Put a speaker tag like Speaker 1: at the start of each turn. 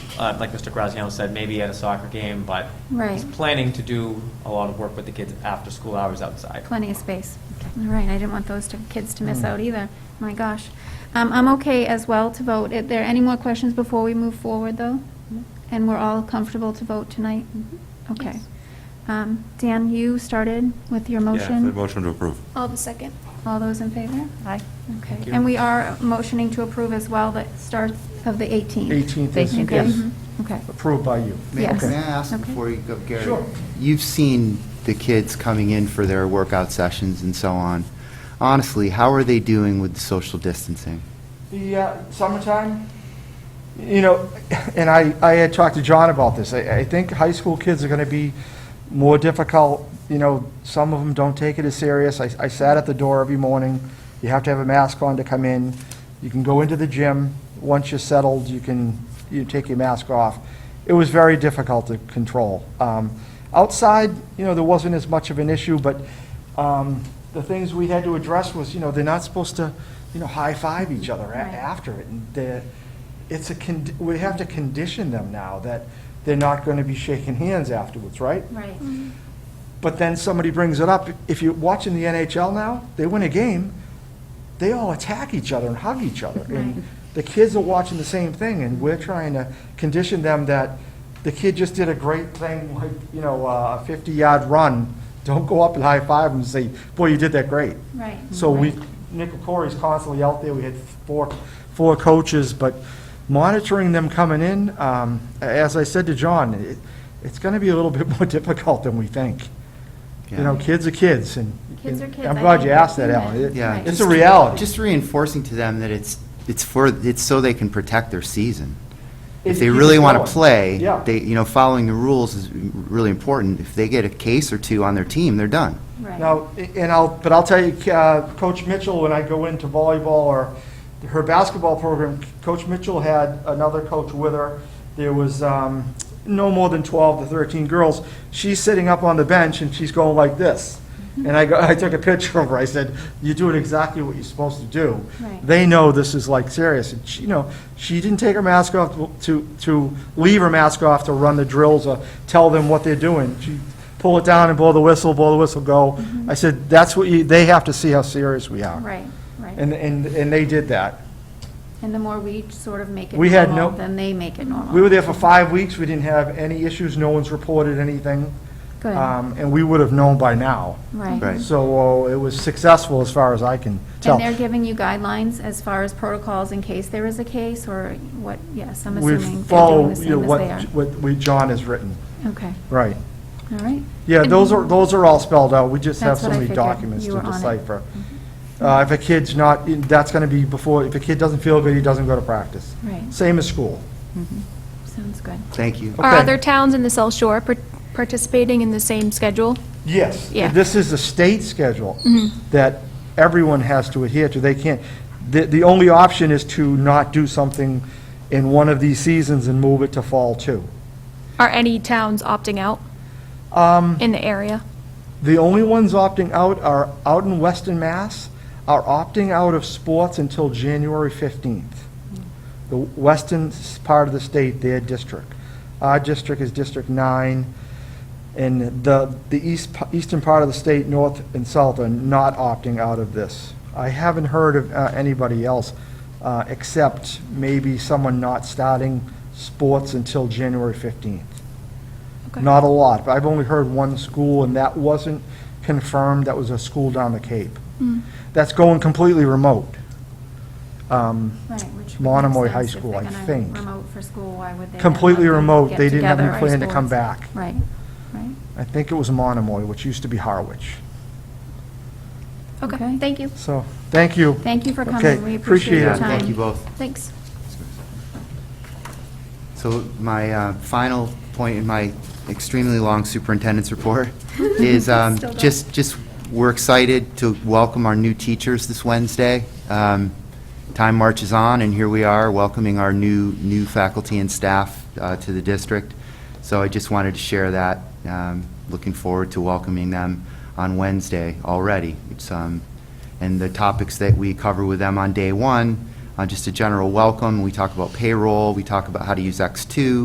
Speaker 1: uh, like Mr. Graziano said, maybe at a soccer game, but he's
Speaker 2: Right.
Speaker 1: planning to do a lot of work with the kids after school hours outside.
Speaker 2: Plenty of space. All right, I didn't want those two kids to miss out either. My gosh. Um, I'm okay as well to vote. Are there any more questions before we move forward, though? And we're all comfortable to vote tonight? Okay.
Speaker 3: Yes.
Speaker 2: Um, Dan, you started with your motion?
Speaker 4: Yeah, motion to approve.
Speaker 3: I'll the second.
Speaker 2: All those in favor?
Speaker 5: Aye.
Speaker 2: Okay.
Speaker 1: Thank you.
Speaker 2: And we are motioning to approve as well the start of the 18th.
Speaker 6: 18th is,
Speaker 5: Thank you.
Speaker 6: yes,
Speaker 2: Mhm. Okay.
Speaker 6: approved by you.
Speaker 7: May
Speaker 2: Yes.
Speaker 7: may I ask
Speaker 2: Okay.
Speaker 7: before you go, Gary?
Speaker 6: Sure.
Speaker 7: You've seen the kids coming in for their workout sessions and so on. Honestly, how are they doing with social distancing?
Speaker 6: The uh, summertime, you know, and I, I had talked to John about this. I, I think high school kids are going to be more difficult, you know, some of them don't take it as serious. I, I sat at the door every morning. You have to have a mask on to come in. You can go into the gym. Once you're settled, you can, you take your mask off. It was very difficult to control. Um, Outside, you know, there wasn't as much of an issue, but um, the things we had to address was, you know, they're not supposed to, you know, high-five each other a-
Speaker 2: Right.
Speaker 6: after it. And they're- It's a, con- we have to condition them now that they're not going to be shaking hands afterwards, right?
Speaker 2: Right.
Speaker 3: Mm.
Speaker 6: But then somebody brings it up. If you're watching the NHL now, they win a game, they all attack each other and hug each other.
Speaker 2: Right.
Speaker 6: And the kids are watching the same thing, and we're trying to condition them that the kid just did a great thing, like, you know, uh, a 50-yard run. Don't go up and high-five them and say, boy, you did that great.
Speaker 2: Right.
Speaker 6: So we, Nick Corey's constantly out there, we had four, four coaches, but monitoring them coming in, um, as I said to John, it, it's gonna be a little bit more difficult than we think. You know,
Speaker 7: Yeah.
Speaker 6: kids are kids, and.
Speaker 2: Kids are kids.
Speaker 6: I'm
Speaker 2: I
Speaker 6: glad
Speaker 2: think
Speaker 6: you asked that,
Speaker 2: they're
Speaker 6: Alan.
Speaker 2: human.
Speaker 6: It-
Speaker 7: Yeah.
Speaker 2: Right.
Speaker 6: It's a reality.
Speaker 7: Just reinforcing to them that it's, it's for, it's so they can protect their season. If they
Speaker 6: It- it
Speaker 7: really
Speaker 6: keeps
Speaker 7: want
Speaker 6: going.
Speaker 7: to play,
Speaker 6: Yeah.
Speaker 7: they, you know, following the rules is really important. If they get a case or two on their team, they're done.
Speaker 2: Right.
Speaker 6: Now, i- and I'll, but I'll tell you, uh, Coach Mitchell, when I go into volleyball or her basketball program, Coach Mitchell had another coach with her. There was um, no more than 12 to 13 girls. She's sitting up on the bench and she's going like this.
Speaker 2: Mm-hmm.
Speaker 6: And I go, I took a picture of her. I said, you're doing exactly what you're supposed to do.
Speaker 2: Right.
Speaker 6: They know this is like serious. And she, you know, she didn't take her mask off to, to leave her mask off to run the drills or tell them what they're doing. She pull it down and blow the whistle, blow the whistle, go. I said, that's what you, they have to see how serious we are.
Speaker 2: Mm-hmm. Right, right.
Speaker 6: And, and, and they did that.
Speaker 2: And the more we sort of make it
Speaker 6: We had
Speaker 2: normal,
Speaker 6: no-
Speaker 2: then they make it normal.
Speaker 6: We were there for five weeks. We didn't have any issues. No one's reported anything.
Speaker 2: Good,
Speaker 6: Um, and we would have known by now.
Speaker 2: right.
Speaker 7: Right.
Speaker 6: So uh, it was successful as far as I can tell.
Speaker 2: And they're giving you guidelines as far as protocols in case there is a case, or what, yes, I'm
Speaker 6: We
Speaker 2: assuming they're doing
Speaker 6: follow,
Speaker 2: the
Speaker 6: you know,
Speaker 2: same
Speaker 6: what,
Speaker 2: as they are.
Speaker 6: what we, John has written,
Speaker 2: Okay,
Speaker 6: right.
Speaker 2: all right.
Speaker 6: Yeah, those are, those are all spelled out, we just have
Speaker 2: That's
Speaker 6: so
Speaker 2: what I
Speaker 6: many
Speaker 2: figured.
Speaker 6: documents
Speaker 2: You
Speaker 6: to
Speaker 2: were on it. Mm-hmm.
Speaker 6: decipher. Uh, if a kid's not, in- that's gonna be before, if a kid doesn't feel good, he doesn't go to practice.
Speaker 2: Right,
Speaker 6: Same as school.
Speaker 2: sounds good.
Speaker 7: Thank you.
Speaker 3: Are
Speaker 6: Okay.
Speaker 3: other towns in the South Shore par- participating in the same schedule?
Speaker 6: Yes.
Speaker 3: Yeah.
Speaker 6: This is the state schedule
Speaker 2: Mm-hmm.
Speaker 6: that everyone has to adhere to. They can't, the, the only option is to not do something in one of these seasons and move it to fall too.
Speaker 3: Are any towns opting out
Speaker 6: Um,
Speaker 3: in the area?
Speaker 6: The only ones opting out are, out in Western Mass, are opting out of sports until January 15th. The western s- part of the state, their district. Our district is District 9, and the, the east, p- eastern part of the state, north and south, are not opting out of this. I haven't heard of uh, anybody else, uh, except maybe someone not starting sports until January 15th.
Speaker 3: Okay.
Speaker 6: Not a lot, but I've only heard one school, and that wasn't confirmed, that was a school down the Cape. That's going completely remote. Um,
Speaker 2: Right, which would make
Speaker 6: Monomoy High
Speaker 2: sense if
Speaker 6: School,
Speaker 2: they're
Speaker 6: I
Speaker 2: gonna
Speaker 6: think.
Speaker 2: Remote for school, why would they? not
Speaker 6: Completely
Speaker 2: let them
Speaker 6: remote,
Speaker 2: get
Speaker 6: they didn't have any
Speaker 2: together, our
Speaker 6: plan to come
Speaker 2: schools?
Speaker 6: back.
Speaker 2: Right, right,
Speaker 6: I think it was Monomoy, which used to be Harwich.
Speaker 2: Okay.
Speaker 3: Okay, thank you.
Speaker 6: So, thank you.
Speaker 2: thank you for
Speaker 6: Okay,
Speaker 2: coming, we appreciate
Speaker 6: appreciate
Speaker 2: your
Speaker 7: Yeah,
Speaker 6: it.
Speaker 2: time.
Speaker 7: Thank you both.
Speaker 3: Thanks.
Speaker 7: So my uh, final point in my extremely long superintendent's report is um, just, just, we're excited to welcome our new teachers this Wednesday. Um, Time marches on, and here we are welcoming our new, new faculty and staff uh, to the district. So I just wanted to share that, um, looking forward to welcoming them on Wednesday already. It's, um, and the topics that we cover with them on day one, uh, just a general welcome, we talk about payroll, we talk about how to use X2,